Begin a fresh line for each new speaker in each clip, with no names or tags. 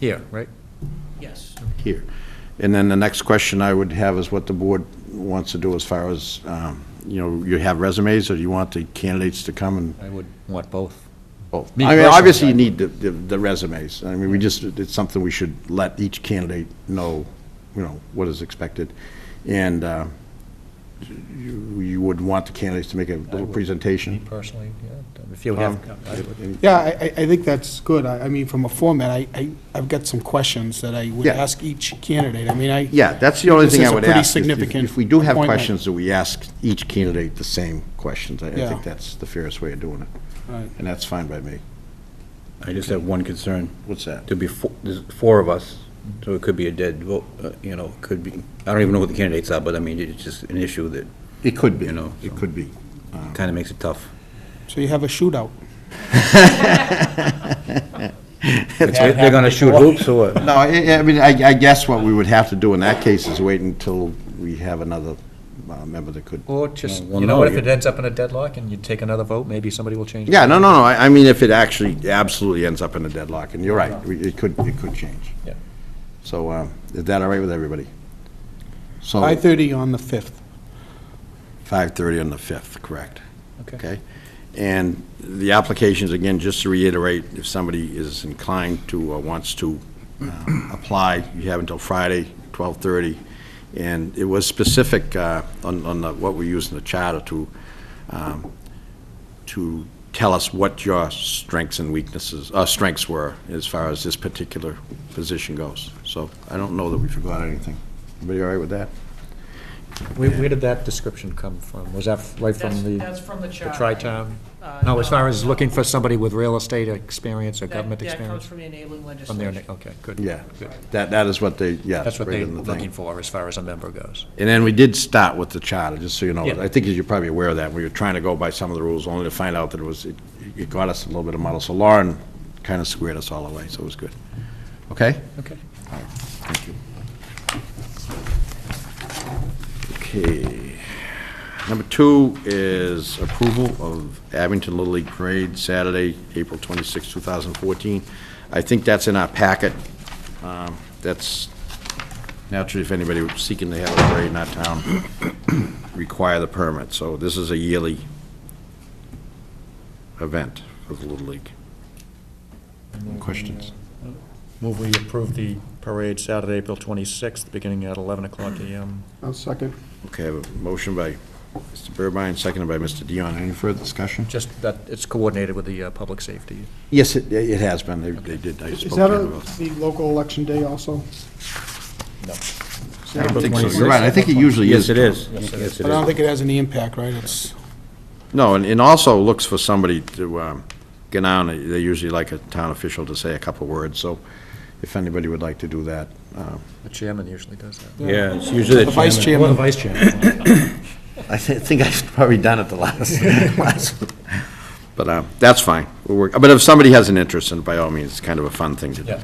Here, right?
Yes.
here. And then the next question I would have is what the board wants to do as far as, um, you know, you have resumes, or do you want the candidates to come and
I would want both.
both?
Me
I mean,
personally,
obviously,
I-
you need the- the the resumes. I mean, we just, it's something we should let each candidate know, you know, what is expected. And uh, you you would want the candidates to make a little presentation?
Me personally, yeah, if
Um,
you have, I would-
Yeah, I, I- I think that's good. I, I mean, from a format, I, I, I've got some questions that I would
Yeah.
ask each candidate. I mean, I.
Yeah, that's the only
This
thing
is
I
a
would
pretty
ask. is if-
significant
If we do have
appointment.
questions, that we ask each candidate the same questions. I I
Yeah.
think that's the fairest way of doing it,
Right.
and that's fine by me.
I just have one concern.
What's that?
There'd be, fo- there's four of us, so it could be a dead vote, uh, you know, it could be, I don't even know what the candidates are, but I mean, it's just an issue that
It could be,
You know,
it
so-
could be.
kind of makes it tough.
So you have a shootout.
If They're they're gonna shoot hoops or what?
No, I, I mean, I, I guess what we would have to do in that case is wait until we have another uh, member that could.
or just,
Well,
you know
no,
what, if
you-
it ends up in a deadlock and you take another vote, maybe somebody will change. it.
Yeah, no, no, no, I, I mean, if it actually absolutely ends up in a deadlock, and you're right, we- it could, it could change.
Yeah.
So, uh, is that all right with everybody? So,
Five-thirty on the fifth.
5:30 on the 5th, correct?
Okay.
Okay. And the applications, again, just to reiterate, if somebody is inclined to, or wants to uh, apply, you have until Friday, 12:30. And it was specific uh, on, on the- what we use in the charter to, um, to tell us what your strengths and weaknesses, uh, strengths were as far as this particular position goes. So I don't know that we forgot anything. Everybody all right with that?
Where, where did that description come from? Was that right
That's,
from
that's
the,
from the
the
charter.
tri-town?
Uh,
No, as far as
no.
looking for somebody with real estate experience or
That-
government
That comes
experience?
from the enabling
From there,
legislation.
okay, good.
Yeah.
good.
That, that is what they, yeah.
That's what
right
they're
in the thing.
looking for as far as a member goes.
And then we did start with the charter, just so you know.
Yeah.
I think you're probably aware of that. We were trying to go by some of the rules, only to find out that it was, it- it got us a little bit of muddle. So Lauren kind of squared us all away, so it was good. Okay?
Okay.
Okay. Number two is approval of Abington Little League Parade, Saturday, April 26, 2014. I think that's in our packet. Um, That's, naturally, if anybody was seeking to have a parade in our town, require the permit. So this is a yearly event for the Little League. Questions?
Move we approve the parade Saturday, April 26th, beginning at 11 o'clock AM.
I'll second.
Okay, I have a motion by Mr. Burbine, seconded by Mr. Dion. Any further discussion?
Just that it's coordinated with the uh, public safety.
Yes, it, it has been, they, they did, I spoke
Is
to
that
them
a-
about.
the local election day also?
No.
I don't think so, you're
26?
right, I think it usually is.
Yes, it
Tom.
is. Yes, it
But I don't
is.
think it has any impact, right? It's,
No, and, and also looks for somebody to, um, get on, they usually like a town official to say a couple words, so if anybody would like to do that, uh,
The chairman usually does that.
Yeah, it's usually
the vice
Or the
chairman,
vice chairman.
I thi- think I've probably done it the last, last. But, uh, that's fine, we'll work, but if somebody has an interest, and by all means, it's kind of a fun thing to do.
Yeah.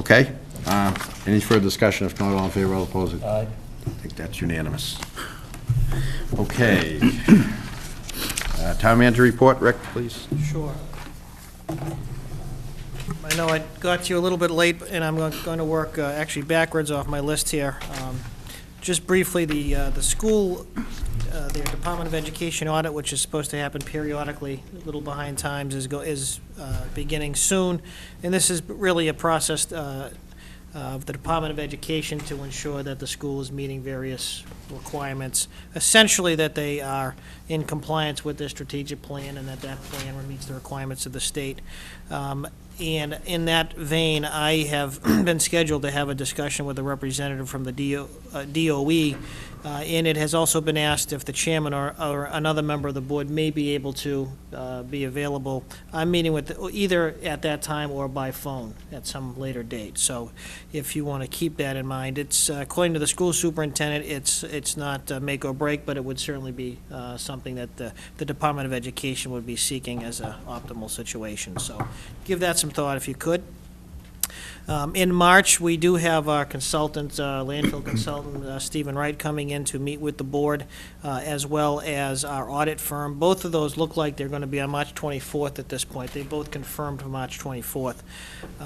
Okay, uh, any further discussion, if not, all in favor, all opposed?
Aye.
I think that's unanimous. Okay. Uh, Town manager report, Rick, please.
Sure. I know I got to you a little bit late, and I'm going to work uh, actually backwards off my list here. Um, Just briefly, the, uh, the school, uh, their Department of Education audit, which is supposed to happen periodically, a little behind times, is, go is uh, beginning soon. And this is really a process uh, of the Department of Education to ensure that the school is meeting various requirements, essentially that they are in compliance with their strategic plan and that that plan meets the requirements of the state. Um, And in that vein, I have been scheduled to have a discussion with a representative from the DO uh, DOE, uh, and it has also been asked if the chairman or or another member of the board may be able to uh, be available. I'm meeting with, either at that time or by phone at some later date. So if you want to keep that in mind. It's, uh, according to the school superintendent, it's, it's not uh, make or break, but it would certainly be uh, something that the, the Department of Education would be seeking as an optimal situation. So give that some thought if you could. Um, In March, we do have our consultant, uh, landfill consultant, uh, Stephen Wright, coming in to meet with the board, uh, as well as our audit firm. Both of those look like they're going to be on March 24th at this point. They both confirmed March 24th.